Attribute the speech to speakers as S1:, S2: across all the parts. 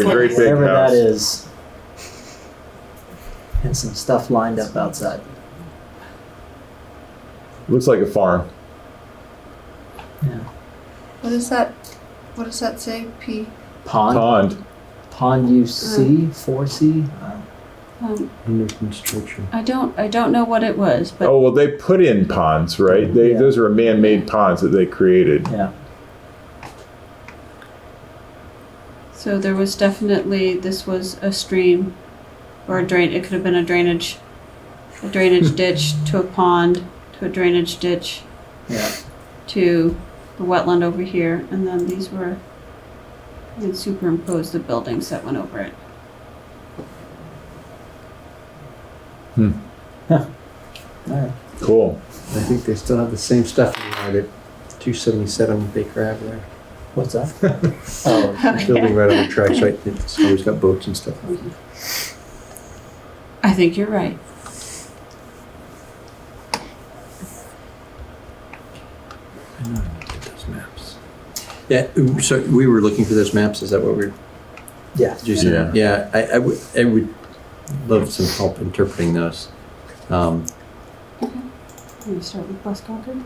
S1: A great big
S2: whatever
S1: house.
S2: that is. And some stuff lined up outside.
S1: Looks like a farm.
S2: Yeah.
S3: What does that? What does that say? P.
S2: Pond.
S1: Pond.
S2: Pond UC,
S4: Mm.
S2: 4C. Uh,
S4: Um,
S5: Under construction.
S4: I don't, I don't know what it was, but
S1: Oh well, they put in ponds, right? They
S2: Yeah.
S1: those are man-made ponds that they created.
S2: yeah.
S4: so there was definitely this was a stream or a drain. It could have been a drainage, a drainage ditch to a pond to a drainage ditch
S2: Yeah.
S4: to the wetland over here, and then these were. They superimposed the buildings that went over it.
S2: All right.
S1: Cool.
S5: I think they still have the same stuff in mind at 277 Baker Avenue.
S2: What's that? oh,
S5: Building right on the track site. It's always got boats and stuff.
S4: I think you're right.
S5: I know I did those maps. Yeah, so we were looking for those maps. Is that what we're?
S2: yeah.
S5: Did you say that? Yeah, I, I would, I would love some help interpreting those. Um,
S4: Let me start with West Concord.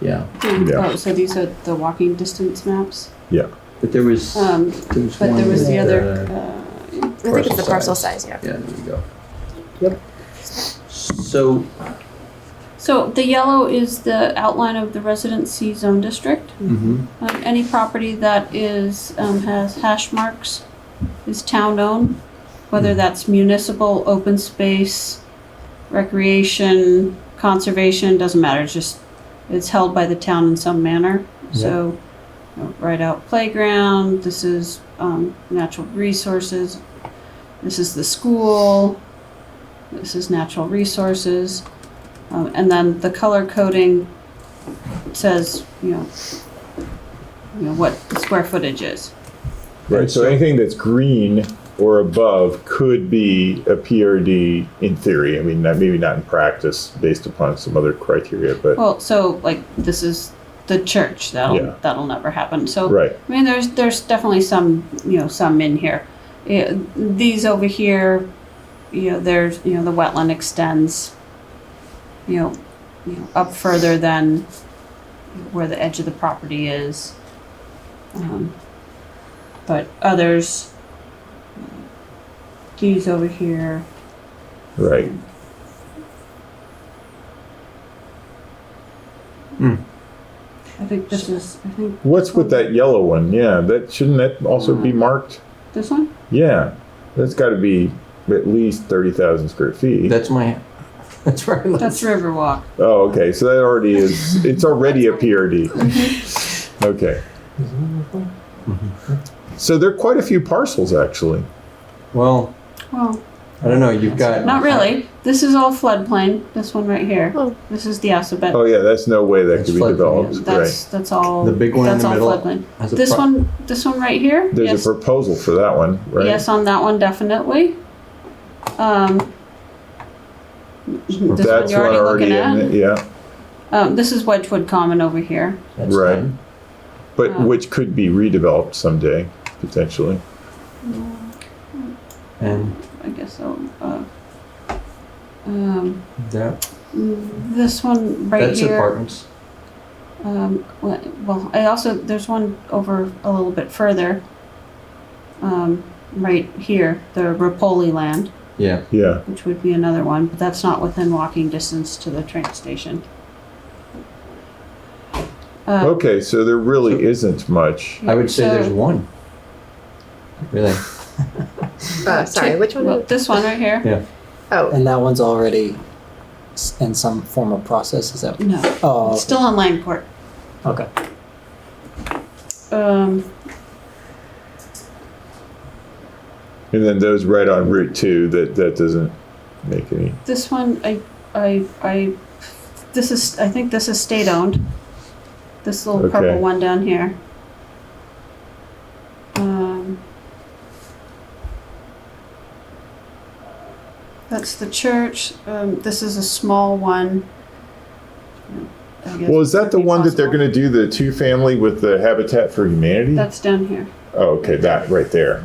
S5: yeah,
S1: Yeah.
S4: Oh, so these are the walking distance maps.
S5: but there was, there
S4: Um,
S5: was
S4: but there
S5: one
S4: was the
S5: with,
S4: other.
S5: uh,
S4: Uh,
S6: I think it's the
S5: Parcel
S6: parcel
S5: size.
S6: size, yeah.
S5: Yeah, there we go.
S2: Yep.
S5: So,
S4: So the yellow is the outline of the residency zone district.
S5: mhm,
S4: Um, any property that is, um, has hash marks is town-owned, whether that's municipal, open space, recreation, conservation, doesn't matter, it's just, it's held by the town in some manner. So, you know, right out playground, this is, um, natural resources, this is the school, this is natural resources. Um, and then the color coding says, you know, you know, what the square footage is.
S1: Right. So anything that's green or above could be a PRD in theory. I mean, not, maybe not in practice, based upon some other criteria, but
S4: Well, so like this is the church. That'll
S1: Yeah.
S4: that'll never happen. So
S1: right.
S4: I mean, there's there's definitely some you know some in here. Yeah, these over here, you know, there's you know the wetland extends, you know, you know up further than where the edge of the property is. Um, but others, these over here,
S1: Right.
S4: I think this is I think
S1: What's with that yellow one? Yeah, that shouldn't that also be marked?
S4: this one.
S1: Yeah, that's got to be at least thirty thousand square feet.
S5: that's my, that's where I left.
S4: That's Riverwalk.
S1: oh, okay. So that already is. It's already a PRD.
S4: Mm-hmm.
S1: okay. So there are quite a few parcels actually.
S5: Well,
S4: Well,
S5: I don't know, you've got.
S4: not really. This is all floodplain. This one right here.
S6: Oh.
S4: This is the alphabet.
S1: Oh yeah, that's no way that
S5: That's
S1: could be
S5: floodplain,
S1: developed.
S4: That's that's all.
S5: The big one in
S4: That's
S5: the
S4: all
S5: middle
S4: floodplain.
S5: Has a
S4: This
S5: pro-
S4: one, this one right here.
S1: right. There's
S4: yes,
S1: a proposal for that one, right?
S4: yes, on that one definitely. Um, this one
S1: that's
S4: you're already, looking
S1: in
S4: at.
S1: it. Yeah,
S4: Um, this is Wedgewood Common over here.
S2: That's
S1: right.
S2: done.
S1: But
S4: Um,
S1: which could be redeveloped someday potentially.
S5: And
S4: I guess so. Uh, um,
S5: that,
S4: this one right
S5: that's
S4: here.
S5: apartments.
S4: Um, well- well, I also, there's one over a little bit further, um, right here, the Rapoli land,
S5: Yeah,
S1: Yeah.
S4: which would be another one, but that's not within walking distance to the train station. Uh,
S1: Okay, so there really isn't much.
S5: I would say there's
S4: so-
S5: one. Really?
S6: Uh, sorry, which one?
S4: Well,
S6: was-
S4: This one right here?
S5: Yeah.
S6: Oh,
S2: And that one's already s- in some form of process. Is that?
S4: No,
S2: Oh,
S4: it's still on Langport.
S2: okay.
S4: Um,
S1: And then those right on Route Two, that that doesn't make any.
S4: this one, I, I, I, this is, I think this is state-owned. This little
S1: Okay.
S4: purple one down here. Um, That's the church, um, this is a small one. I guess
S1: Well, is that the
S4: it'd be
S1: one that they're
S4: possible.
S1: going to do the two family with the Habitat for Humanity?
S4: That's down here,
S1: Oh, okay, that right there.